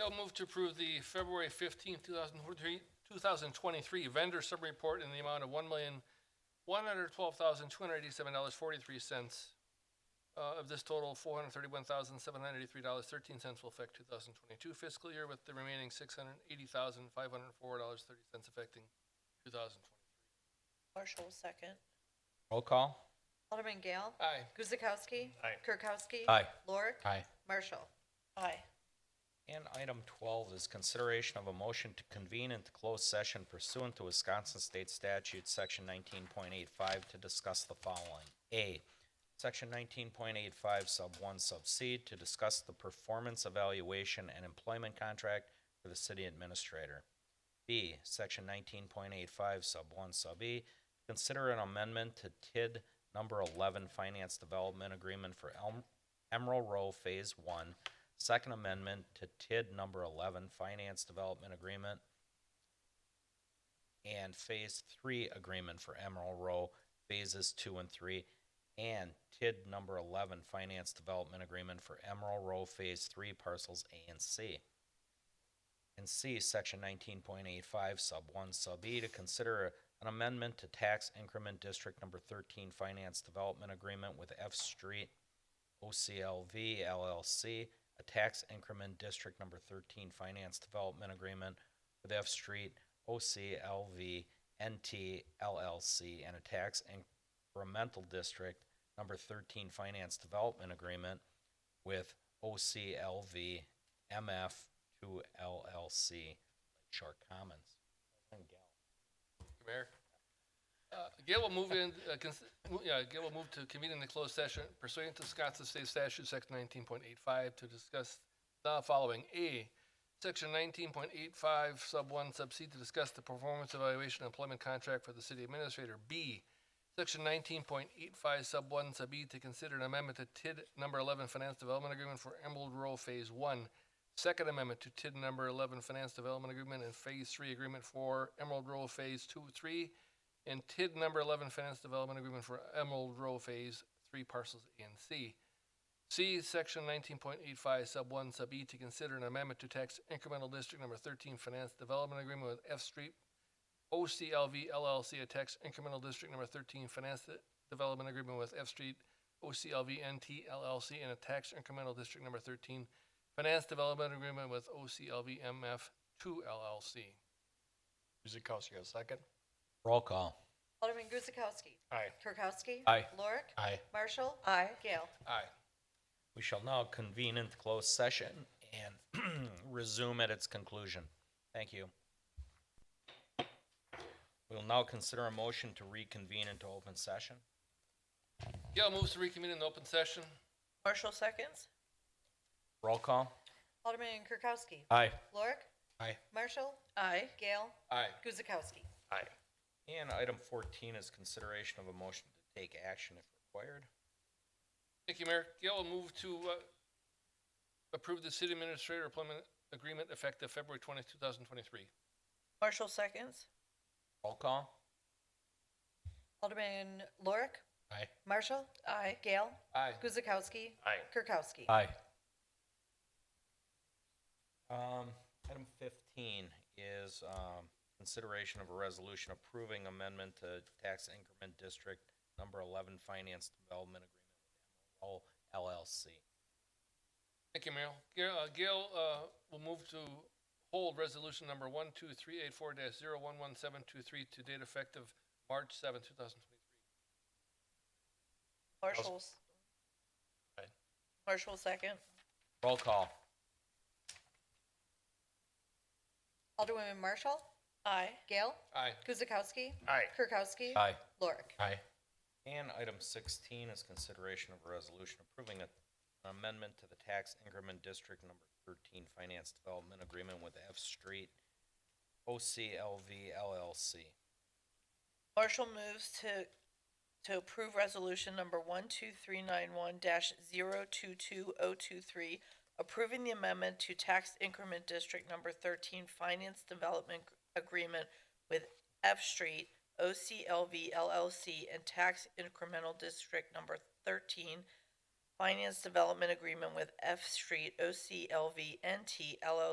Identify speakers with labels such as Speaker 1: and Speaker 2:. Speaker 1: I'll move to approve the February fifteenth, two thousand twenty-three, two thousand twenty-three vendor sub-report in the amount of one million, one hundred twelve thousand, two hundred eighty-seven dollars, forty-three cents. Uh, of this total, four hundred thirty-one thousand, seven hundred eighty-three dollars, thirteen cents will affect two thousand twenty-two fiscal year, with the remaining six hundred eighty thousand, five hundred four dollars, thirty cents affecting two thousand twenty.
Speaker 2: Marshall will second.
Speaker 3: Roll call.
Speaker 4: Alderman Gale.
Speaker 1: Aye.
Speaker 4: Guzekowski.
Speaker 1: Aye.
Speaker 4: Kirkowski.
Speaker 3: Aye.
Speaker 4: Lorik.
Speaker 3: Aye.
Speaker 4: Marshall.
Speaker 2: Aye.
Speaker 3: And item twelve is consideration of a motion to convene into closed session pursuant to Wisconsin State Statute, section nineteen point eight five, to discuss the following. A, section nineteen point eight five, sub one, sub C, to discuss the performance evaluation and employment contract for the city administrator. B, section nineteen point eight five, sub one, sub E, consider an amendment to TID number eleven Finance Development Agreement for Elm, Emerald Row Phase One, Second Amendment to TID number eleven Finance Development Agreement and Phase Three Agreement for Emerald Row Phases Two and Three, and TID number eleven Finance Development Agreement for Emerald Row Phase Three Parcels A and C. And C, section nineteen point eight five, sub one, sub E, to consider an amendment to tax increment district number thirteen finance development agreement with F Street OCLV LLC, a tax increment district number thirteen finance development agreement with F Street OCLV NT LLC, and a tax incremental district number thirteen finance development agreement with OCLV MF two LLC, Lake Shore Commons.
Speaker 1: Thank you, Mayor. Uh, Gail will move in, uh, cons- mo- yeah, Gail will move to convene in the closed session pursuant to Wisconsin State Statute, Section nineteen point eight five, to discuss the following. A, Section nineteen point eight five, sub one, sub C, to discuss the performance evaluation employment contract for the city administrator. B, Section nineteen point eight five, sub one, sub E, to consider an amendment to TID number eleven Finance Development Agreement for Emerald Row Phase One, Second Amendment to TID number eleven Finance Development Agreement and Phase Three Agreement for Emerald Row Phase Two, Three, and TID number eleven Finance Development Agreement for Emerald Row Phase Three Parcels A and C. C, section nineteen point eight five, sub one, sub E, to consider an amendment to tax incremental district number thirteen Finance Development Agreement with F Street OCLV LLC, a tax incremental district number thirteen finance de- development agreement with F Street OCLV NT LLC, and a tax incremental district number thirteen finance development agreement with OCLV MF two LLC.
Speaker 5: Guzekowski, a second.
Speaker 3: Roll call.
Speaker 4: Alderman Guzekowski.
Speaker 5: Aye.
Speaker 4: Kirkowski.
Speaker 3: Aye.
Speaker 4: Lorik.
Speaker 3: Aye.
Speaker 4: Marshall.
Speaker 2: Aye.
Speaker 4: Gale.
Speaker 1: Aye.
Speaker 3: We shall now convene into closed session and resume at its conclusion. Thank you. We'll now consider a motion to reconvene into open session.
Speaker 1: Gail moves to reconvene in the open session.
Speaker 2: Marshall seconds.
Speaker 3: Roll call.
Speaker 4: Alderman Kirkowski.
Speaker 3: Aye.
Speaker 4: Lorik.
Speaker 3: Aye.
Speaker 4: Marshall.
Speaker 2: Aye.
Speaker 4: Gale.
Speaker 1: Aye.
Speaker 4: Guzekowski.
Speaker 5: Aye.
Speaker 3: And item fourteen is consideration of a motion to take action if required.
Speaker 1: Thank you, Mayor. Gail will move to uh, approve the city administrator employment agreement effective February twentieth, two thousand twenty-three.
Speaker 2: Marshall seconds.
Speaker 3: Roll call.
Speaker 4: Alderman Lorik.
Speaker 3: Aye.
Speaker 4: Marshall.
Speaker 2: Aye.
Speaker 4: Gale.
Speaker 1: Aye.
Speaker 4: Guzekowski.
Speaker 5: Aye.
Speaker 4: Kirkowski.
Speaker 3: Aye. Um, item fifteen is, um, consideration of a resolution approving amendment to tax increment district number eleven finance development agreement with MRL LLC.
Speaker 1: Thank you, Merrill. Gail, uh, Gail, uh, will move to hold resolution number one, two, three, eight, four, dash, zero, one, one, seven, two, three, to date effective March seventh, two thousand twenty-three.
Speaker 2: Marshall's.
Speaker 5: Aye.
Speaker 2: Marshall second.
Speaker 3: Roll call.
Speaker 4: Alderwoman Marshall.
Speaker 2: Aye.
Speaker 4: Gale.
Speaker 1: Aye.
Speaker 4: Guzekowski.
Speaker 5: Aye.
Speaker 4: Kirkowski.
Speaker 3: Aye.
Speaker 4: Lorik.
Speaker 5: Aye.
Speaker 3: And item sixteen is consideration of a resolution approving a- an amendment to the tax increment district number thirteen finance development agreement with F Street OCLV LLC.
Speaker 2: Marshall moves to, to approve resolution number one two three nine one dash zero two two oh two three, approving the amendment to tax increment district number thirteen finance development agreement with F Street, OCLV LLC, and tax incremental district number thirteen finance development agreement with F Street, OCLV NT LLC